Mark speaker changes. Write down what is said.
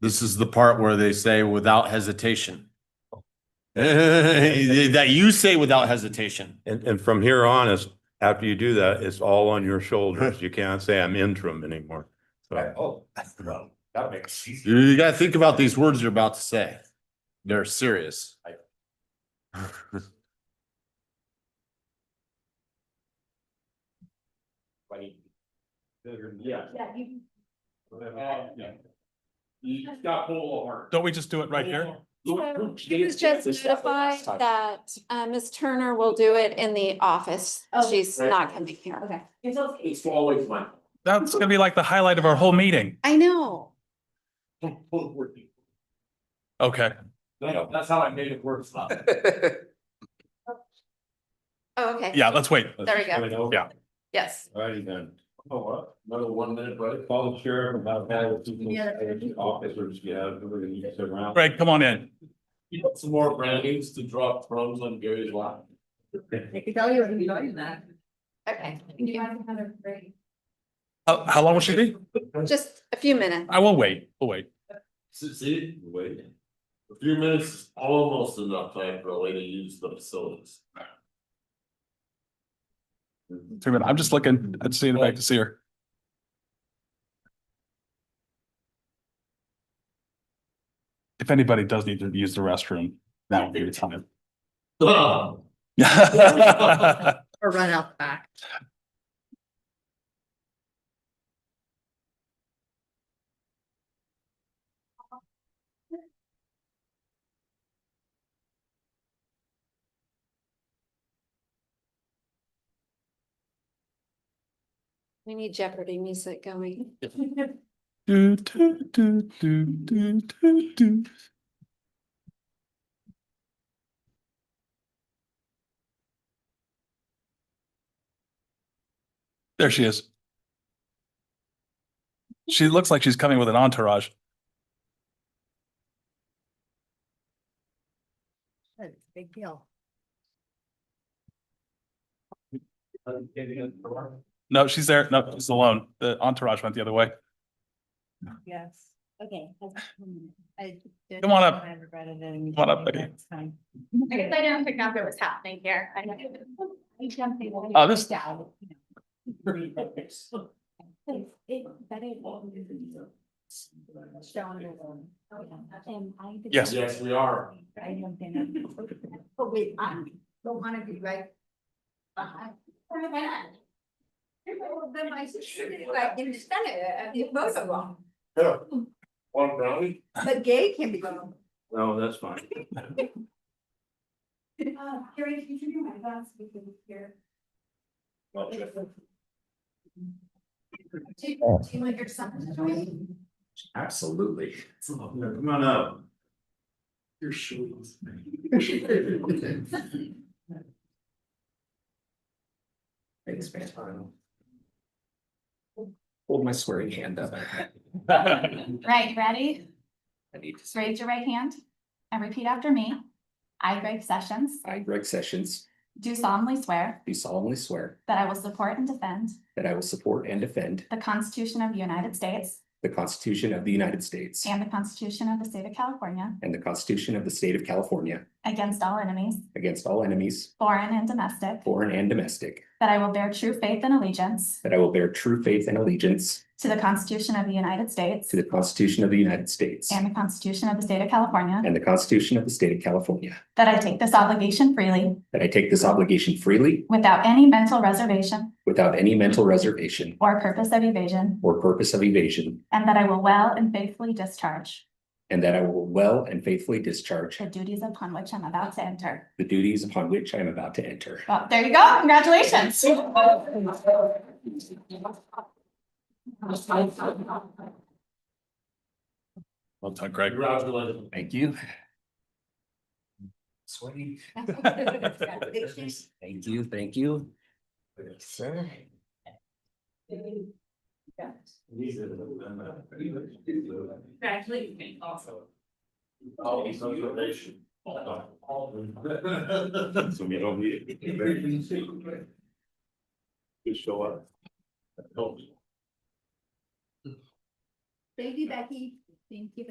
Speaker 1: This is the part where they say without hesitation. That you say without hesitation.
Speaker 2: And, and from here on is, after you do that, it's all on your shoulders. You can't say I'm interim anymore. So
Speaker 3: Oh, well, that makes sense.
Speaker 1: You gotta think about these words you're about to say. They're serious.
Speaker 3: Funny. Yeah.
Speaker 4: Yeah, you,
Speaker 3: You got full of heart.
Speaker 5: Don't we just do it right here?
Speaker 4: so she was just notified that, uh, Ms. Turner will do it in the office.
Speaker 6: Oh.
Speaker 4: She's not gonna be here.
Speaker 6: Okay.
Speaker 3: It's always mine.
Speaker 5: That's gonna be like the highlight of our whole meeting.
Speaker 4: I know.
Speaker 3: That-
Speaker 5: Okay,
Speaker 3: That's how I made it work.
Speaker 4: Oh, okay.
Speaker 5: yeah, let's wait.
Speaker 4: There we
Speaker 3: go.
Speaker 4: go.
Speaker 5: Yeah.
Speaker 4: Yes.
Speaker 3: Alrighty then. Oh, what? Another one minute, right? Call the sheriff about that. if you think- Officers, yeah, we're gonna use it around.
Speaker 5: Greg, come on in.
Speaker 3: You want some more brownies to drop crumbs on Gary's lap?
Speaker 6: I could tell you, I'd be doing that.
Speaker 4: Okay.
Speaker 6: You have another break.
Speaker 5: How, how long will she be?
Speaker 4: Just a few minutes.
Speaker 5: I will wait, we'll wait.
Speaker 3: See- See, wait. A few minutes, is almost enough time for a lady to use the facilities.
Speaker 5: Three minutes. I'm just looking, I'm seeing if I can see her. If anybody does need to use the restroom, that would be the time.
Speaker 3: Ugh.
Speaker 6: Or run out the back.
Speaker 4: We need Jeopardy music going.
Speaker 5: Do, do, do, do, do, do, do. There she is. She looks like she's coming with an entourage.
Speaker 6: Big deal.
Speaker 5: No, she's there. No, she's alone. The entourage went the other way.
Speaker 6: Yes. Okay.
Speaker 5: Come on up.
Speaker 6: Come
Speaker 5: Come on up, baby.
Speaker 6: I guess I didn't pick up what was happening here. I know.
Speaker 5: Oh, this-
Speaker 6: Down.
Speaker 5: Yes.
Speaker 3: Yes, we are.
Speaker 6: I don't think I'm- But wait, I don't wanna be right. behind. Where am I? Well, Then my sister is like in the center, and you both are wrong,
Speaker 3: Yeah. One brownie?
Speaker 6: but gay can be wrong.
Speaker 2: No, that's fine.
Speaker 6: Carrie, can you do my glass because here?
Speaker 3: Well,
Speaker 6: Do
Speaker 3: check.
Speaker 6: do you want your son to join?
Speaker 3: Absolutely.
Speaker 2: Come on up.
Speaker 3: Your shoes. Thanks, man. Hold my swearing hand up.
Speaker 7: Right, ready? Just raise your right hand and repeat after me. I, Greg Sessions,
Speaker 8: I, Greg Sessions,
Speaker 7: do solemnly swear
Speaker 8: do solemnly swear
Speaker 7: that I will support and defend
Speaker 8: that I will support and defend
Speaker 7: the Constitution of the United States
Speaker 8: the Constitution of the United States
Speaker 7: and the Constitution of the State of California
Speaker 8: and the Constitution of the State of California
Speaker 7: against all enemies,
Speaker 8: against all enemies,
Speaker 7: foreign and domestic,
Speaker 8: foreign and domestic,
Speaker 7: that I will bear true faith and allegiance
Speaker 8: that I will bear true faith and allegiance
Speaker 7: to the Constitution of the United States
Speaker 8: to the Constitution of the United States
Speaker 7: and the Constitution of the State of California,
Speaker 8: and the Constitution of the State of California,
Speaker 7: that I take this obligation freely
Speaker 8: that I take this obligation freely
Speaker 7: without any mental reservation
Speaker 8: without any mental reservation
Speaker 7: or purpose of evasion,
Speaker 8: or purpose of evasion,
Speaker 7: and that I will well and faithfully discharge
Speaker 8: and that I will well and faithfully discharge
Speaker 7: the duties upon which I'm about to enter.
Speaker 8: the duties upon which I am about to enter.
Speaker 7: Well, there you go. Congratulations.
Speaker 5: Well done, Greg.
Speaker 3: Congratulations.
Speaker 8: Thank you. Sweaty. Thank you, thank you. Sir.
Speaker 3: These are the-
Speaker 6: Congratulations.
Speaker 3: All these observations.
Speaker 2: So we don't need it. Just show up.
Speaker 6: Thank you, Becky. Thank you.